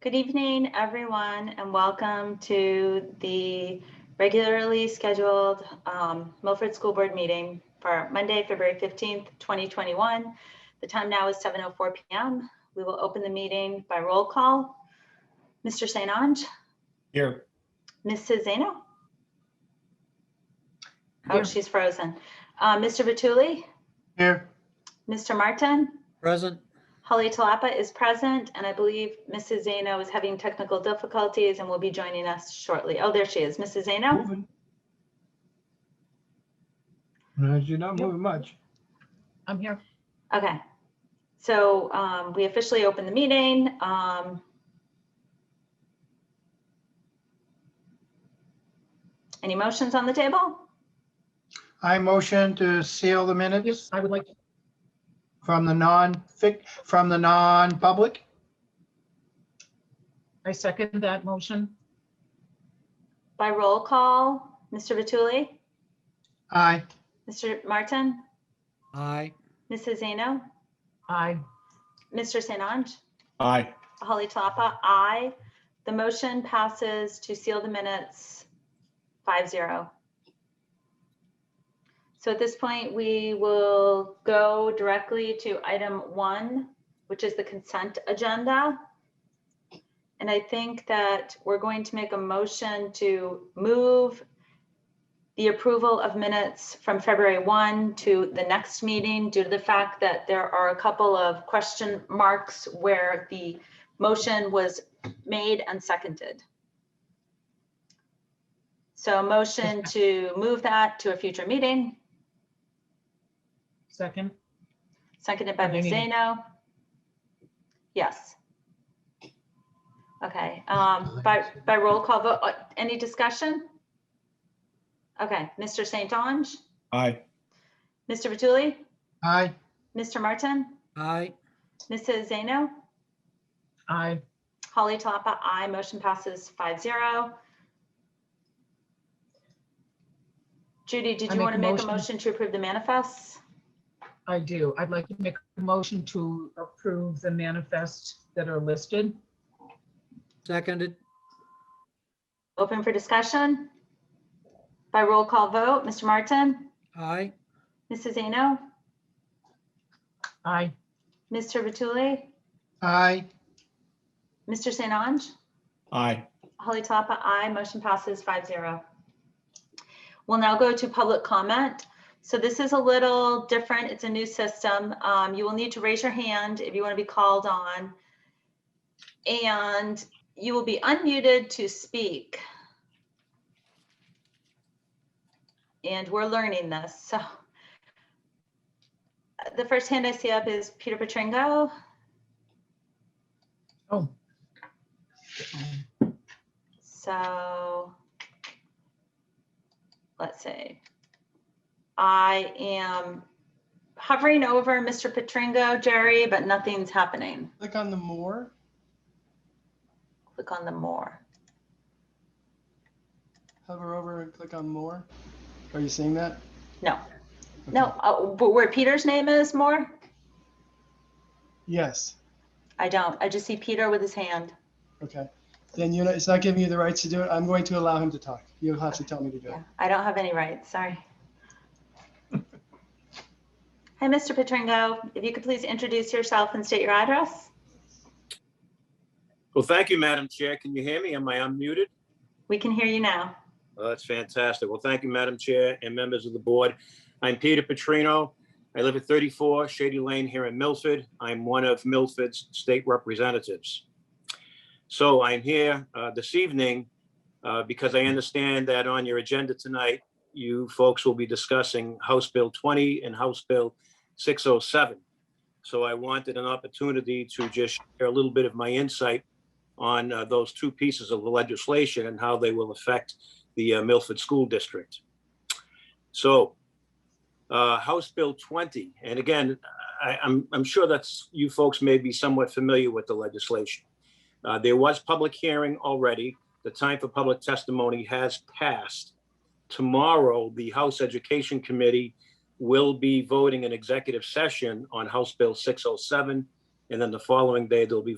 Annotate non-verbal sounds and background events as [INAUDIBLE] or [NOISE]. Good evening, everyone, and welcome to the regularly scheduled um, Milford School Board meeting for Monday, February 15th, 2021. The time now is 7:04 PM. We will open the meeting by roll call. Mr. St. Ange, Here. Mrs. Zeno? Oh, she's frozen. Uh, Mr. Vituli, Here. Mr. Martin? Present, Holly Talapa is present, and I believe Mrs. Zano is having technical difficulties and will be joining us shortly. Oh, there she is. Mrs. Zano? moving. Uh, You're not moving much. I'm here. Okay. So um, we officially open the meeting. um, Any motions on the table? I motion to seal the minutes Yes, I would like, from the non-fic, from the non-public. I second that motion. By roll call, Mr. Vituli, Aye. Mr. Martin, aye. Mrs. Zano, Aye. Mr. St. Ange? Aye. Holly Talapa, aye. The motion passes to seal the minutes 5-0. So at this point, we will go directly to item one, which is the consent agenda. And I think that we're going to make a motion to move the approval of minutes from February 1 to the next meeting due to the fact that there are a couple of question marks where the motion was made and seconded. So a motion to move that to a future meeting, Second. seconded by Okay, Ms. meeting. Zano. Yes. Okay, um, by, by roll call vote, uh, any discussion? Okay, Mr. St. Ange, Aye. Mr. Vituli, Aye. Mr. Martin, Aye, Mrs. Zano? Aye. Holly Talapa, I Motion passes 5-0. Judy, did I you make want to a make a motion. motion to approve the manifests? I do. I'd like to make a motion to approve the manifests that are listed. seconded, Open for discussion? By roll call vote, Mr. Martin, aye. Mrs. Zeno, Aye. Mr. Vitule, Aye. Mr. St. Ange? Aye. Holly Talapa, I Motion passes 5-0. zero. We'll now go to public comment. So this is a little different. It's a new system. Um, You will need to raise your hand if you want to be called on. And you will be unmuted to speak. And we're learning this, so. The first hand I see up is Peter Petringo. Oh. So let's see. I am hovering over Mr. Petringo, Jerry, but nothing's happening. Click on the more. Click on the more. Hover over and click on more. Are you seeing that? No, Okay. no, uh, but where Peter's name is more? Yes. I don't. I just see Peter with his hand. Okay. Then you know it's not giving you the rights to do it. I'm going to allow him to talk. You'll have to tell me to do it. Yeah, I don't have any rights, [LAUGHS] sorry. Hi, Mr. Petringo, if you could please introduce yourself and state your address? Well, thank you, Madam Chair. Can you hear me? Am I unmuted? We can hear you now. Oh, That's fantastic. Well, thank you, Madam Chair and members of the board. I'm Peter Petrino. I live at 34 Shady Lane here in Milford. I'm one of Milford's state representatives. So I'm here uh, this evening uh, because I understand that on your agenda tonight, you folks will be discussing House Bill 20 and House Bill 607. So I wanted an opportunity to just share a little bit of my insight on uh, those two pieces of the legislation and how they will affect the uh, Milford School District. So, uh, House Bill 20, and again, I, I'm, I'm sure that's, you folks may be somewhat familiar with the legislation. Uh, there was public hearing already. The time for public testimony has passed. Tomorrow, the House Education Committee will oh be voting in executive session on House Bill 607. And then the following day, they'll be